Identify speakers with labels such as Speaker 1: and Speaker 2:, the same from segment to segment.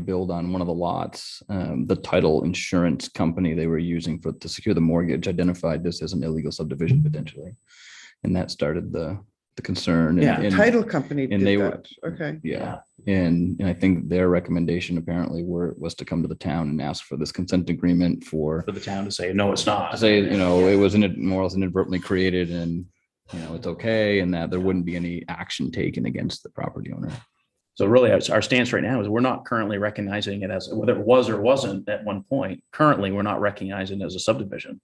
Speaker 1: build on one of the lots, um, the title insurance company they were using for to secure the mortgage identified this as an illegal subdivision potentially. And that started the the concern. and-
Speaker 2: Yeah,
Speaker 1: and-
Speaker 3: Title company
Speaker 1: and they
Speaker 3: did
Speaker 1: were-
Speaker 3: that. Okay.
Speaker 1: Yeah, and, and I think their recommendation apparently were, was to come to the town and ask for this consent agreement for,
Speaker 2: for the town to say, no, it's not.
Speaker 1: to say, you know, it was in, more or less inadvertently created and, you know, it's okay, and that there wouldn't be any action taken against the property owner.
Speaker 2: So really, our our stance right now is we're not currently recognizing it as, whether it was or wasn't at one point, currently, we're not recognizing it as a subdivision.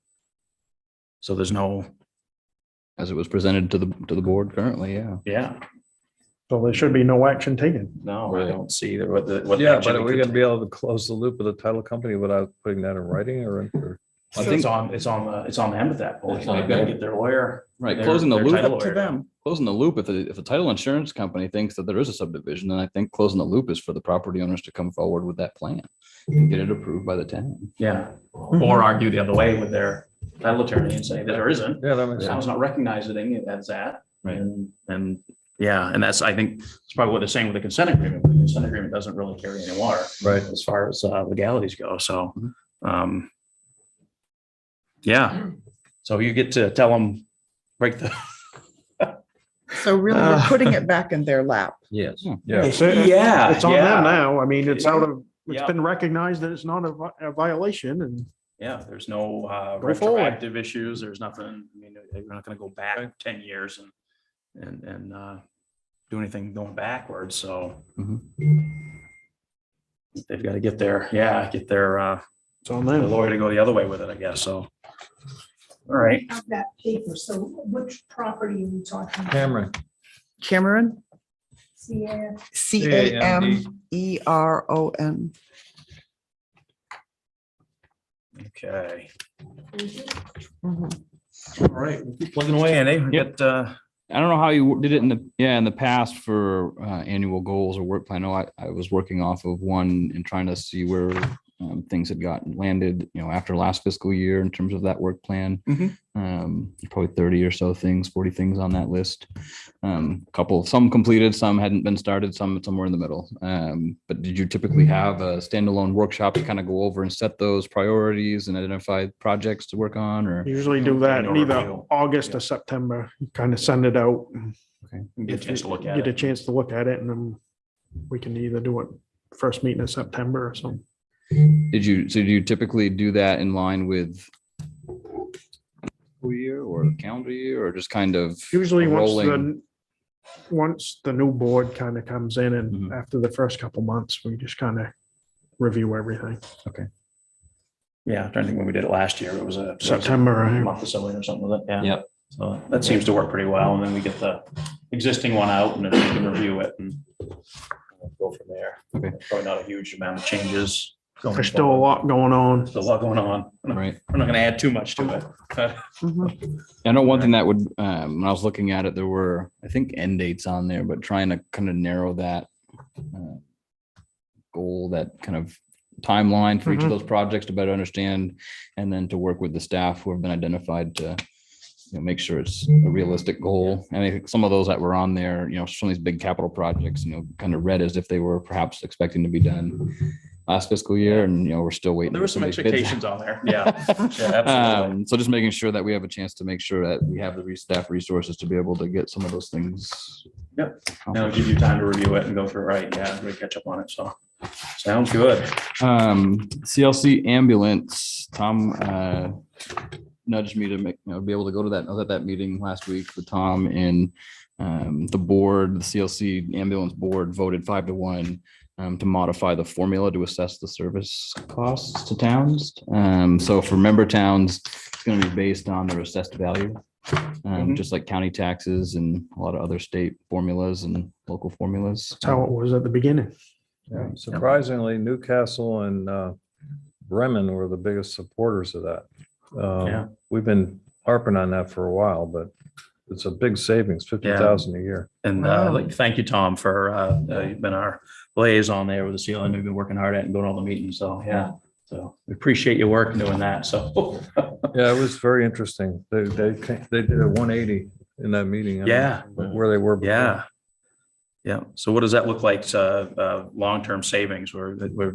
Speaker 2: So there's no,
Speaker 1: As it was presented to the, to the board currently, yeah.
Speaker 2: yeah,
Speaker 4: So there should be no action taken.
Speaker 2: no, I don't see the- what the. what
Speaker 5: Yeah,
Speaker 2: action
Speaker 5: but are
Speaker 2: we
Speaker 5: we
Speaker 2: could
Speaker 5: gonna be able to close the loop with the title company without putting that in writing or? in- or-
Speaker 2: take. It's on, it's on, the- it's on them at that point.
Speaker 1: It's on
Speaker 2: They've got to
Speaker 1: them.
Speaker 2: get their lawyer.
Speaker 1: Right,
Speaker 2: their-
Speaker 1: closing the
Speaker 2: their
Speaker 1: loop,
Speaker 2: title
Speaker 3: Up to
Speaker 2: lawyer.
Speaker 3: them.
Speaker 1: closing the loop, if the, if the title insurance company thinks that there is a subdivision, then I think closing the loop is for the property owners to come forward with that plan. and Get it approved by the town.
Speaker 2: Yeah, or argue the other way with their title attorney and say that there isn't.
Speaker 5: Yeah, that makes
Speaker 2: I
Speaker 5: sense.
Speaker 2: was not recognizing it as that.
Speaker 1: Right.
Speaker 2: And, and, yeah, and that's, I think, that's probably what they're saying with the consent agreement. The consent agreement doesn't really carry any water
Speaker 5: Right.
Speaker 2: as far as uh, legalities go, so,
Speaker 1: Mhm.
Speaker 2: um, yeah, so you get to tell them, break the.
Speaker 3: So really, we're
Speaker 1: Ah.
Speaker 2: Uh.
Speaker 3: putting it back in their lap.
Speaker 5: Yes.
Speaker 1: Yeah.
Speaker 5: Yeah.
Speaker 2: Ah, Yeah.
Speaker 4: It's on them now. I mean, it's out of, it's
Speaker 2: Yeah.
Speaker 4: been recognized that it's not a vi- a violation and.
Speaker 2: Yeah, there's no uh,
Speaker 4: Go forward.
Speaker 2: retroactive issues, there's nothing, I mean, uh, you're not gonna go back ten years and, and, and, uh, do anything going backwards, so.
Speaker 4: Mm-hmm.
Speaker 1: Mhm.
Speaker 2: They've gotta get their, yeah, get their, uh,
Speaker 4: It's on
Speaker 2: the
Speaker 4: them.
Speaker 2: lawyer to go the other way with it, I guess, so. All right,
Speaker 6: Of that paper, so which property are we talking? about?
Speaker 5: Cameron.
Speaker 3: Cameron,
Speaker 6: Yeah,
Speaker 3: C A M E R O N.
Speaker 2: okay,
Speaker 3: Mhm.
Speaker 4: Mm-hmm.
Speaker 2: all right, we'll keep plugging away, and we
Speaker 1: Yep.
Speaker 2: got, uh,
Speaker 1: I don't know how you did it in the, yeah, in the past for uh, annual goals or work plan. I know I, I was working off of one and trying to see where um, things had gotten landed, you know, after last fiscal year in terms of that work plan.
Speaker 2: Mhm.
Speaker 1: Um, probably thirty or so things, forty things on that list. Um, a couple, some completed, some hadn't been started, some somewhere in the middle. Um, but did you typically have a standalone workshop to kind of go over and set those priorities and identify projects to work on or?
Speaker 4: Usually
Speaker 2: Mm,
Speaker 4: do that in either
Speaker 2: Overview.
Speaker 4: August or September, kind of send it out. and
Speaker 2: get a chance to look at
Speaker 4: Get a
Speaker 2: it.
Speaker 4: chance to look at it and then we can either do it first meeting in September or something.
Speaker 1: Did you, so do you typically do that in line with school year or calendar year or just kind of?
Speaker 4: Usually once
Speaker 1: rolling?
Speaker 4: the, once the new board kind of comes in and
Speaker 1: Mhm.
Speaker 2: Mm-hmm.
Speaker 4: after the first couple months, we just kind of review everything.
Speaker 2: Yeah, I'm trying to think when we did it last year, it was a.
Speaker 4: September,
Speaker 2: a
Speaker 4: right?
Speaker 2: Month or something or something like that, yeah.
Speaker 1: Yep.
Speaker 2: So that seems to work pretty well, and then we get the existing one out and then we can review it and go from there.
Speaker 1: Okay.
Speaker 2: Probably not a huge amount of changes. going
Speaker 4: There's still a
Speaker 2: forward.
Speaker 4: lot going on.
Speaker 2: There's a lot going on. I'm
Speaker 1: Right.
Speaker 2: not gonna add too much to it.
Speaker 3: Mhm.
Speaker 1: I know one thing that would, um, when I was looking at it, there were, I think, end dates on there, but trying to kind of narrow that uh, goal, that kind of timeline for each of
Speaker 2: Mm-hmm.
Speaker 4: Mhm.
Speaker 1: those projects to better understand and then to work with the staff who have been identified to you know, make sure it's a realistic goal. And I think some of those that were on there, you know, some of these big capital projects, you know, kind of read as if they were perhaps expecting to be done last fiscal year and, you know, we're still waiting.
Speaker 2: There
Speaker 1: for
Speaker 2: were some
Speaker 1: of these bids.
Speaker 2: expectations on there, yeah. Yeah, absolutely.
Speaker 1: Um, so just making sure that we have a chance to make sure that we have the re- staff resources to be able to get some of those things.
Speaker 2: Yep. Now
Speaker 1: accomplished.
Speaker 2: give you time to review it and go through, it right, yeah, we catch up on it, so. Sounds good.
Speaker 1: Um, CLC ambulance, Tom, uh, nudged me to make, you know, be able to go to that, I was at that meeting last week with Tom and, um, the board, the CLC ambulance board voted five to one, um, to modify the formula to assess the service costs to towns. Um, so for member towns, it's gonna be based on their assessed value. Um,
Speaker 4: Mm-hmm.
Speaker 2: Mhm.
Speaker 1: just like county taxes and a lot of other state formulas and local formulas.
Speaker 4: That's how
Speaker 2: Mm-hmm.
Speaker 4: it was at the beginning.
Speaker 5: Yeah. Surprisingly, Newcastle and uh, Bremen were the biggest supporters of that.
Speaker 2: Yeah.
Speaker 5: Um, We've been harping on that for a while, but it's a big savings, fifty thousand a year.
Speaker 2: And uh,
Speaker 3: Wow.
Speaker 2: like, thank you, Tom, for uh, uh, you've been our liaison there with the CLN. We've been working hard at and going to all the meetings. So, yeah. So we appreciate your work doing that. So,
Speaker 5: Yeah, it was very interesting. They, they, ca- they did a one eighty in that meeting. I don't
Speaker 2: Yeah.
Speaker 5: know Where they were. before.
Speaker 2: yeah. Yeah. So what does that look like? Uh, uh, long-term savings where, where